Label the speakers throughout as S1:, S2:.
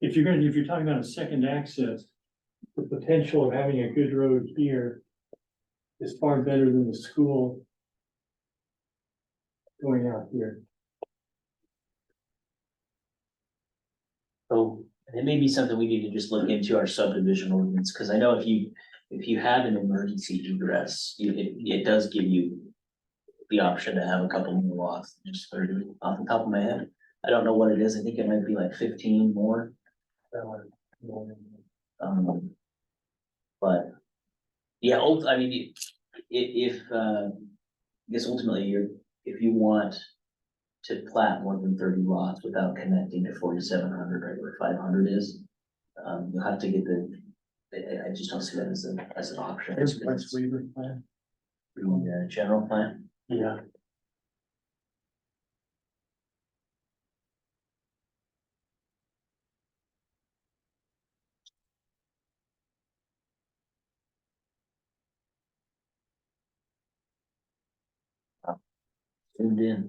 S1: if you're gonna, if you're talking about a second access, the potential of having a good road here is far better than the school going out here.
S2: So it may be something we need to just look into our subdivision ordinance, because I know if you, if you have an emergency egress, you, it, it does give you. The option to have a couple more lots, just sort of off the top of my head, I don't know what it is, I think it might be like fifteen more. Um. But. Yeah, ult- I mean, i- if, uh, I guess ultimately you're, if you want to plat more than thirty lots without connecting to forty-seven hundred, right, where five hundred is. Um, you'll have to get the, I, I- I just don't see that as an, as an option.
S1: There's West Weaver plan.
S2: Through the general plan.
S1: Yeah.
S2: zoomed in.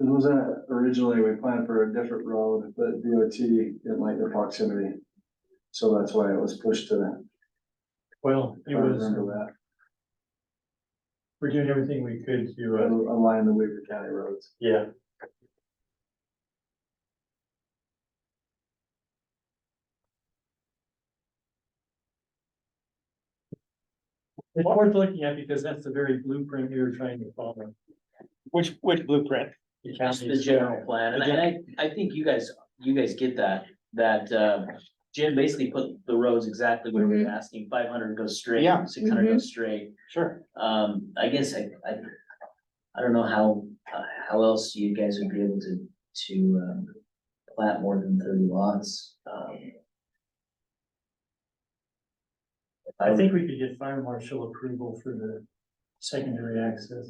S3: It was that originally, we planned for a different road, but DOT didn't like the proximity. So that's why it was pushed to that.
S1: Well,
S3: if
S1: it
S3: I
S1: was,
S3: remember that.
S1: we're doing everything we could to, uh,
S3: Al- Align the Weaver County roads.
S1: yeah. It's worth looking at because that's the very blueprint we were trying to follow.
S4: Which, which blueprint?
S2: Just the general plan, and I, and I, I think you guys, you guys get that, that, uh, Jim basically put the roads exactly where we were
S1: Mm-hmm.
S2: asking, five hundred goes straight,
S4: Yeah.
S2: six hundred goes straight.
S4: Sure.
S2: Um, I guess I, I, I don't know how, uh, how else you guys would be able to, to, um, plat more than thirty lots, um.
S1: I think we could get fire marshal approval for the secondary access.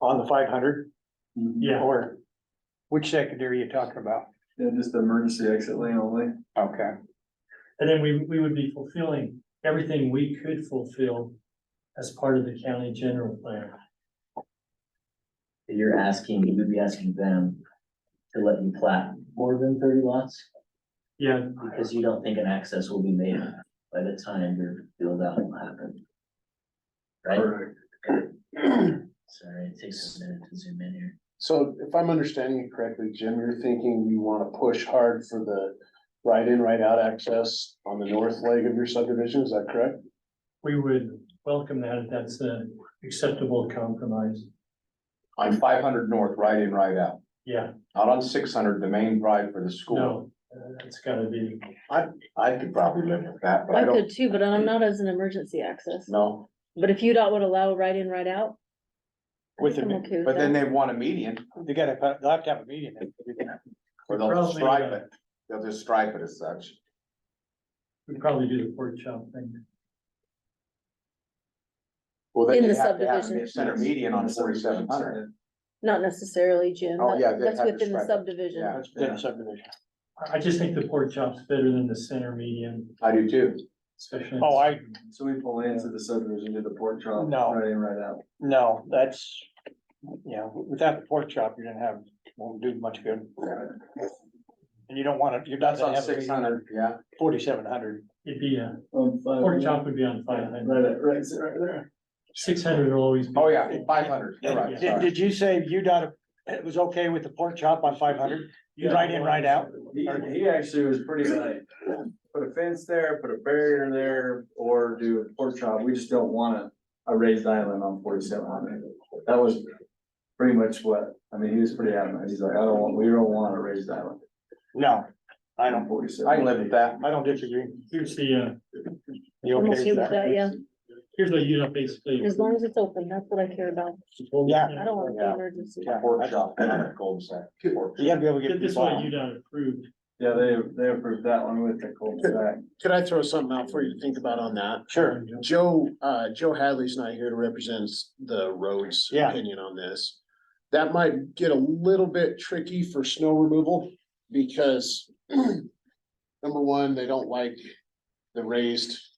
S4: On the five hundred?
S1: Yeah.
S4: Or which secondary are you talking about?
S3: Yeah, just the emergency exit lane only.
S4: Okay.
S1: And then we, we would be fulfilling everything we could fulfill as part of the county general plan.
S2: You're asking, you would be asking them to let you plat more than thirty lots?
S1: Yeah,
S2: Because you don't think an access will be made by the time your build out will happen. Right,
S3: Correct.
S2: sorry, it takes a minute to zoom in here.
S5: So if I'm understanding it correctly, Jim, you're thinking you wanna push hard for the right in, right out access on the north leg of your subdivision, is that correct?
S1: we would welcome that if that's an acceptable compromise.
S6: On five hundred north, right in, right out,
S1: Yeah,
S6: not on six hundred, the main drive for the school.
S1: no, uh, that's gotta be,
S6: I could probably live with that, but I
S7: I
S6: don't,
S7: could too, but I'm not as an emergency access.
S6: no,
S7: But if UDOT would allow right in, right out. I
S4: With
S7: think
S4: the-
S7: I'm okay with
S6: but then
S7: that.
S6: they want a median,
S4: They gotta, put- they'll have to have a meeting. then.
S6: or they'll
S1: uh,
S6: just stripe it, they'll just stripe it as such.
S1: we'd probably do the pork chop thing.
S6: Well, then
S7: In
S6: you
S7: the
S6: have to have
S7: subdivision.
S6: a Center median on forty-seven hundred,
S7: Not necessarily, Jim.
S6: Oh,
S7: That-
S6: yeah, they
S7: That's
S6: have to
S7: within the
S6: strike it.
S7: subdivision.
S6: Yeah.
S4: That's the subdivision.
S1: I, I just think the pork chop's better than the center median,
S6: I do too.
S1: especially.
S4: Oh, I,
S3: So we pull into the subdivision, do the pork chop,
S4: No.
S3: right in, right out.
S4: no, that's, yeah, without the pork chop, you're gonna have, won't do much good. And you don't wanna, you're not
S6: That's
S4: gonna
S6: on
S4: have
S6: six hundred, yeah,
S4: forty-seven hundred.
S1: It'd be a,
S3: On Um, five-
S1: pork chop would be on five hundred,
S3: Right, right, right there.
S1: six hundred will always be.
S6: oh yeah, five hundred, you're right,
S4: Did,
S6: sorry.
S4: did you say UDOT, it was okay with the pork chop on five hundred? You right in, right out?
S3: He, he actually was pretty like, put a fence there, put a barrier there, or do a pork chop, we just don't want a, a raised island on forty-seven hundred. That was pretty much what, I mean, he was pretty adamant, he's like, I don't want, we don't want a raised island.
S4: No, I don't,
S6: I
S3: Forty-seven.
S6: can live with that.
S4: I don't disagree.
S1: Here's the, uh,
S4: You
S7: I'm
S4: okay
S7: okay
S4: with
S7: with
S4: that?
S7: that, yeah.
S1: here's what you know, basically.
S7: As long as it's open, that's what I care about.
S4: Yeah.
S7: I don't want to be
S6: Yeah.
S7: emergency.
S6: Pork chop, not a cul-de-sac, pork
S4: You gotta be able to get.
S1: Get this
S4: people
S1: one,
S4: out.
S1: you got approved.
S3: Yeah, they, they approved that one with the cul-de-sac.
S5: Could I throw something out for you to think about on that?
S4: Sure.
S5: Joe, uh, Joe Hadley's not here to represent the roads
S4: Yeah.
S5: opinion on this. That might get a little bit tricky for snow removal because number one, they don't like the raised